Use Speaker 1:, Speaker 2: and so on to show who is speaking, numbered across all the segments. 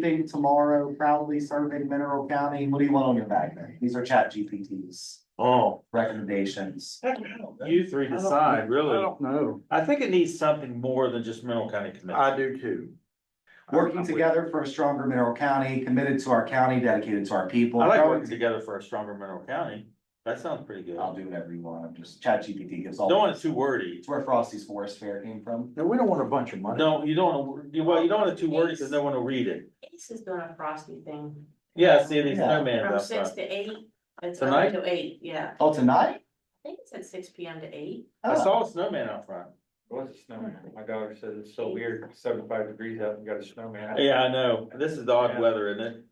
Speaker 1: leaving tomorrow proudly serving Mineral County. What do you want on your bag there? These are chat GPTs,
Speaker 2: Oh,
Speaker 1: recommendations.
Speaker 2: you three decide, really. I don't know. I think it needs something more than just Mineral County Commission. I do too.
Speaker 1: Working together for a stronger Mineral County, committed to our county, dedicated to our people.
Speaker 2: I like working together for a stronger Mineral County. That sounds pretty good.
Speaker 1: I'll do whatever you want. I'm just, chat GPT gives all.
Speaker 2: Don't want it too wordy.
Speaker 1: It's where Frosty's Forest Fair came from.
Speaker 3: No, we don't want a bunch of money.
Speaker 2: No, you don't want to, well, you don't want it too wordy because no one will read it.
Speaker 4: Ace is doing a frosty thing.
Speaker 2: Yeah, see, these
Speaker 1: Yeah.
Speaker 2: snowman
Speaker 4: From
Speaker 2: about
Speaker 4: six
Speaker 2: that.
Speaker 4: to eight, it's
Speaker 2: Tonight?
Speaker 4: up to eight, yeah,
Speaker 1: Oh, tonight?
Speaker 4: I think it's at six P M to eight.
Speaker 2: I
Speaker 1: Oh.
Speaker 2: saw a snowman out front.
Speaker 5: What's a snowman? My daughter says it's so weird, seventy-five degrees out and got a snowman.
Speaker 2: Yeah, I know. This is odd weather, isn't it?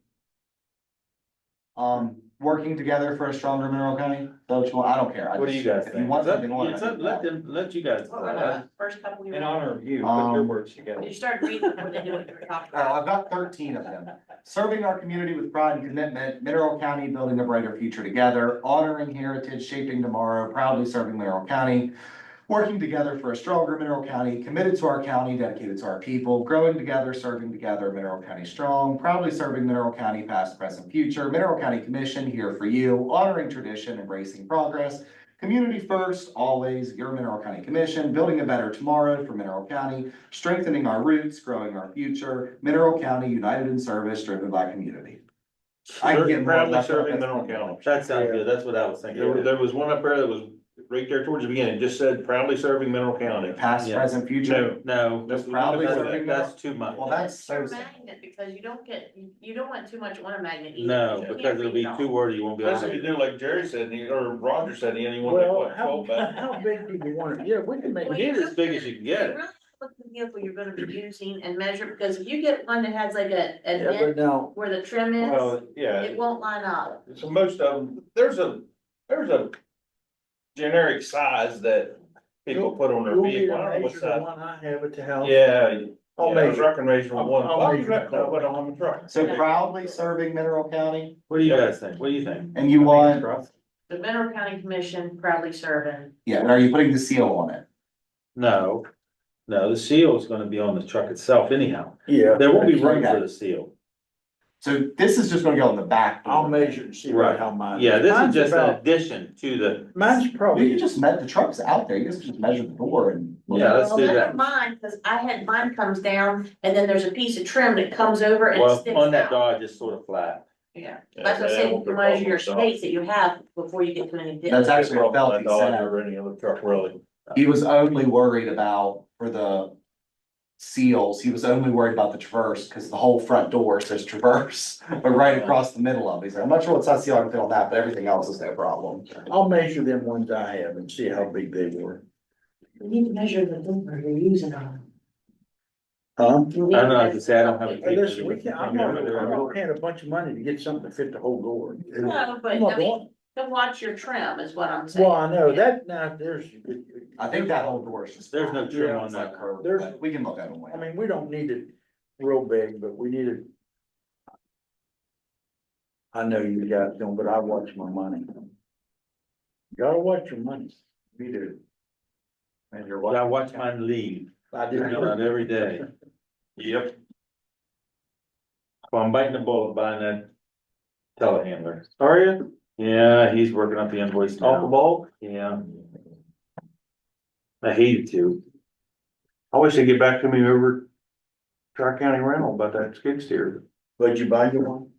Speaker 1: Um, working together for a stronger Mineral County, so what you want, I don't care. I
Speaker 2: What do you
Speaker 1: just-
Speaker 2: guys
Speaker 1: If
Speaker 2: think?
Speaker 1: you want
Speaker 2: Let-
Speaker 1: something,
Speaker 2: it's up- Let
Speaker 1: on.
Speaker 2: them, let you guys.
Speaker 4: What were
Speaker 2: decide.
Speaker 4: the first couple we
Speaker 5: In
Speaker 4: were,
Speaker 5: honor of you, put your
Speaker 1: Um,
Speaker 5: words
Speaker 4: you
Speaker 5: together.
Speaker 4: started reading what they do what you were talking
Speaker 1: Oh,
Speaker 4: about.
Speaker 1: I've got thirteen of them. Serving our community with pride and commitment, Mineral County building a brighter future together, honoring heritage, shaping tomorrow, proudly serving Mineral County. Working together for a stronger Mineral County, committed to our county, dedicated to our people, growing together, serving together, Mineral County strong, proudly serving Mineral County past, present, future, Mineral County Commission here for you, honoring tradition, embracing progress. Community first, always, your Mineral County Commission, building a better tomorrow for Mineral County, strengthening our roots, growing our future, Mineral County united in service, driven by community. I can get more
Speaker 6: Proudly
Speaker 1: left out,
Speaker 6: serving
Speaker 1: that's-
Speaker 6: Mineral County.
Speaker 2: That sounds good. That's what I was thinking.
Speaker 6: There was, there was one up there that was right there towards the beginning, it just said proudly serving Mineral County.
Speaker 1: Past,
Speaker 2: Yeah.
Speaker 1: present, future.
Speaker 6: No.
Speaker 2: No,
Speaker 6: that's-
Speaker 1: Proudly
Speaker 6: that's-
Speaker 1: serving-
Speaker 2: that's, that's too much.
Speaker 1: Well, that's so
Speaker 4: It's your
Speaker 1: sad.
Speaker 4: magnet, because you don't get, you- you don't want too much on a magnet either.
Speaker 2: No,
Speaker 4: You can't
Speaker 2: because it'll be
Speaker 4: read all.
Speaker 2: too wordy. You won't be able
Speaker 6: That's
Speaker 2: to
Speaker 6: if
Speaker 2: read
Speaker 6: you
Speaker 2: it.
Speaker 6: do like Jerry said, you- or Roger said, you only want like
Speaker 3: Well,
Speaker 6: what,
Speaker 3: how,
Speaker 6: twelve back?
Speaker 3: how big do you want it? Yeah, we can make.
Speaker 4: Well,
Speaker 2: Get it
Speaker 4: you
Speaker 2: as big as you can get.
Speaker 4: really Look at the vehicle you're gonna be using and measure, because if you get one that has like a, a
Speaker 3: Yeah, but
Speaker 4: dent
Speaker 3: now,
Speaker 4: where the trim is,
Speaker 6: Well, yeah,
Speaker 4: it won't line up.
Speaker 6: so most of them, there's a, there's a generic size that people put on their
Speaker 3: you'll be
Speaker 6: vehicle.
Speaker 3: the
Speaker 6: I don't know
Speaker 3: measure
Speaker 6: what
Speaker 3: the
Speaker 6: size.
Speaker 3: one I have at the house.
Speaker 6: Yeah.
Speaker 3: I'll
Speaker 6: yeah, I was
Speaker 3: measure.
Speaker 6: Recommendation
Speaker 3: I'll-
Speaker 6: one.
Speaker 3: I'll
Speaker 6: Why you
Speaker 3: measure it.
Speaker 6: reckon I put on the truck?
Speaker 1: So proudly serving Mineral County,
Speaker 2: What do you guys think? What do you think?
Speaker 1: and you want,
Speaker 4: The Mineral County Commission proudly serving.
Speaker 1: yeah, but are you putting the seal on it?
Speaker 2: No, no, the seal is gonna be on the truck itself anyhow.
Speaker 3: Yeah.
Speaker 2: There won't be room for the seal.
Speaker 1: So this is just gonna go on the back. door.
Speaker 3: I'll measure and see
Speaker 2: Right.
Speaker 3: how mine.
Speaker 2: Yeah, this is
Speaker 3: Mine's
Speaker 2: just an
Speaker 3: about-
Speaker 2: addition to the,
Speaker 3: Mine's
Speaker 1: We
Speaker 3: probably.
Speaker 1: could just met, the truck's out there, you guys could just measure the door and.
Speaker 2: Yeah, let's
Speaker 4: Well,
Speaker 2: do
Speaker 4: never
Speaker 2: that.
Speaker 4: Mine, cause I had mine comes down and then there's a piece of trim that comes over and
Speaker 2: well,
Speaker 4: sticks
Speaker 2: on that
Speaker 4: out.
Speaker 2: Dodge, it's sort of flat.
Speaker 4: Yeah,
Speaker 6: Yeah,
Speaker 4: that's what I'm
Speaker 6: they
Speaker 4: saying,
Speaker 6: won't
Speaker 4: you
Speaker 6: put
Speaker 4: measure
Speaker 6: on
Speaker 4: your
Speaker 6: the top.
Speaker 4: space that you have before you get to any dent.
Speaker 1: That's actually a
Speaker 6: Probably
Speaker 1: felt
Speaker 6: not
Speaker 1: he
Speaker 6: Dodge
Speaker 1: said.
Speaker 6: Or any other truck, really.
Speaker 1: He was only worried about for the seals, he was only worried about the traverse, because the whole front door says traverse, but right across the middle of it, he's like, I'm not sure what size seal I can fit on that, but everything else is no problem.
Speaker 3: I'll measure them ones I have and see how big they were.
Speaker 4: You need to measure the boomer you're using on.
Speaker 3: Huh?
Speaker 4: I don't
Speaker 2: I don't know, I can say I don't have
Speaker 3: Hey,
Speaker 2: a-
Speaker 3: Listen, we can, I'm not, I'm not paying a bunch of money to get something to fit the whole door.
Speaker 4: No, but
Speaker 3: I'm not
Speaker 4: I
Speaker 3: going-
Speaker 4: mean, to watch your trim is what I'm saying.
Speaker 3: Well, I know that now, there's.
Speaker 1: I think that whole door is just.
Speaker 2: There's no trim
Speaker 1: Yeah,
Speaker 2: on
Speaker 1: it's
Speaker 2: that.
Speaker 1: like curved,
Speaker 3: There's-
Speaker 1: but We can look at it.
Speaker 3: I mean, we don't need it real big, but we need it. I know you guys don't, but I watch my money. Gotta watch your money. We do.
Speaker 1: And you're
Speaker 2: I watch mine leave,
Speaker 3: I do.
Speaker 2: not every day.
Speaker 6: Yep.
Speaker 2: If I'm biting the bullet buying that telehandler. Are you? Yeah, he's working up the invoice now.
Speaker 6: Off the ball?
Speaker 2: Yeah. I hated to.
Speaker 6: I wish they'd get back to me over Tri-County Rental about that skid steer.
Speaker 3: But you buy your one?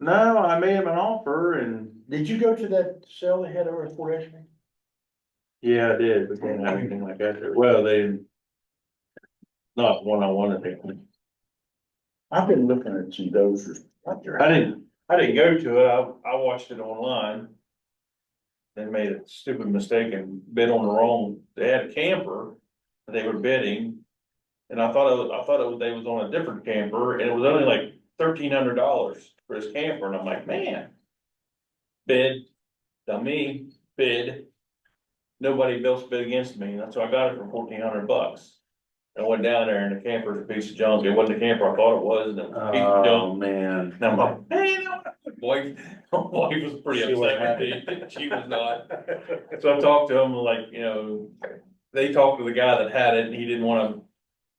Speaker 6: No, I made him an offer and,
Speaker 3: Did you go to that sale they had over at Fort Ashby?
Speaker 6: yeah, I did, but didn't have anything like that. there. Well, they. Not one I wanted to.
Speaker 3: I've been looking at some dozers. out there.
Speaker 6: I didn't, I didn't go to it. I, I watched it online. They made a stupid mistake and bid on the wrong, they had a camper that they were bidding. And I thought, it was- I thought it was, they was on a different camper and it was only like thirteen hundred dollars for this camper and I'm like, man. Bid, dummy, bid. Nobody else bid against me. That's why I got it for fourteen hundred bucks. I went down there and the camper's a piece of junk. It wasn't the camper I thought it was and it was a piece of junk.
Speaker 2: Oh, man.
Speaker 6: And I'm like, man, wife, wife was pretty
Speaker 2: She wasn't
Speaker 6: upset with me. She was not. So I talked to him like, you know, they talked to the guy that had it and he didn't wanna,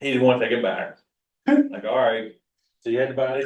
Speaker 6: he didn't wanna take it back. Like, all right,
Speaker 2: So you had to buy